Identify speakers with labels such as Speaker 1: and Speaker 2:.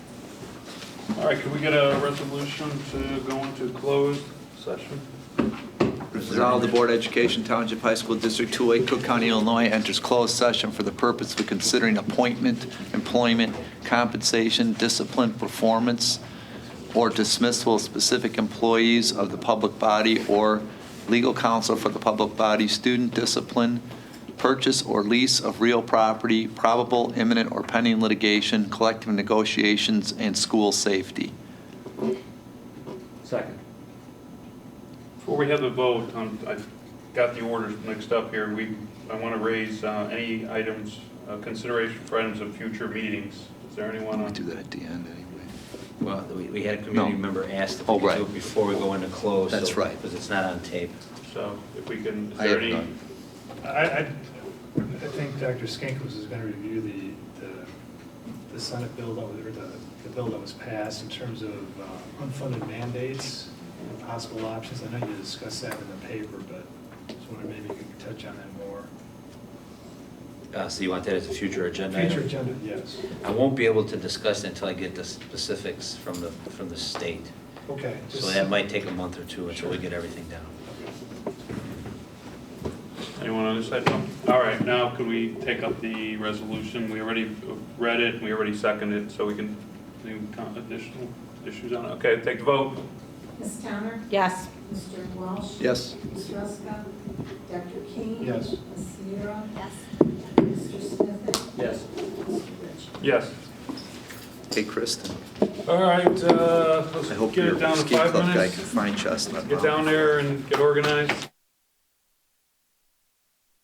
Speaker 1: All right, can we get a resolution to go into closed session?
Speaker 2: Resolve the Board of Education Township High School District 208, Cook County, Illinois enters closed session for the purpose of considering appointment, employment, compensation, discipline, performance, or dismissal of specific employees of the public body or legal counsel for the public body, student discipline, purchase or lease of real property, probable imminent or pending litigation, collective negotiations, and school safety.
Speaker 3: Second.
Speaker 1: Before we have the vote, um, I got the orders mixed up here. We, I want to raise uh, any items, uh, consideration for items of future meetings. Is there anyone
Speaker 2: We
Speaker 1: on?
Speaker 2: do that at the end anyway.
Speaker 3: Well, we, we had a community
Speaker 2: No.
Speaker 3: member ask if
Speaker 2: Oh,
Speaker 3: we could do
Speaker 2: right.
Speaker 3: it before we go into close.
Speaker 2: That's right.
Speaker 3: Because it's not on tape.
Speaker 1: So if we can, is
Speaker 2: I
Speaker 1: there
Speaker 2: have
Speaker 1: any?
Speaker 2: none.
Speaker 4: I, I, I think Dr. Skinkis is gonna review the, the, the Senate bill that was, or the, the bill that was passed in terms of uh, unfunded mandates and possible options. I know you discussed that in the paper, but just wondering maybe you could touch on that more.
Speaker 3: Uh, so you want that as a future agenda item?
Speaker 4: Future agenda, yes.
Speaker 3: I won't be able to discuss it until I get the specifics from the, from the state.
Speaker 4: Okay.
Speaker 3: So
Speaker 4: just-
Speaker 3: that might take a month or two until we
Speaker 4: Sure.
Speaker 3: get everything down.
Speaker 1: Anyone on this side? No. All right, now can we take up the resolution? We already read it, we already seconded, it, so we can, any con- additional issues on it? Okay, take the vote.
Speaker 5: Ms. Towner?
Speaker 6: Yes.
Speaker 5: Mr. Walsh?
Speaker 2: Yes?
Speaker 5: Ms. Ruska? Dr. King?
Speaker 4: Yes.
Speaker 5: Ms. Sierra?
Speaker 6: Yes.
Speaker 5: Mr. Smith?
Speaker 3: Yes.
Speaker 5: Mr. Richards?
Speaker 1: Yes.
Speaker 2: Hey, Kristen.
Speaker 1: All right, uh, let's
Speaker 2: I hope
Speaker 1: get
Speaker 2: your
Speaker 1: it down to
Speaker 2: ski
Speaker 1: five
Speaker 2: club guy
Speaker 1: minutes.
Speaker 2: can find Chestnut.
Speaker 1: Get
Speaker 2: Mountain.
Speaker 1: down there and get organized.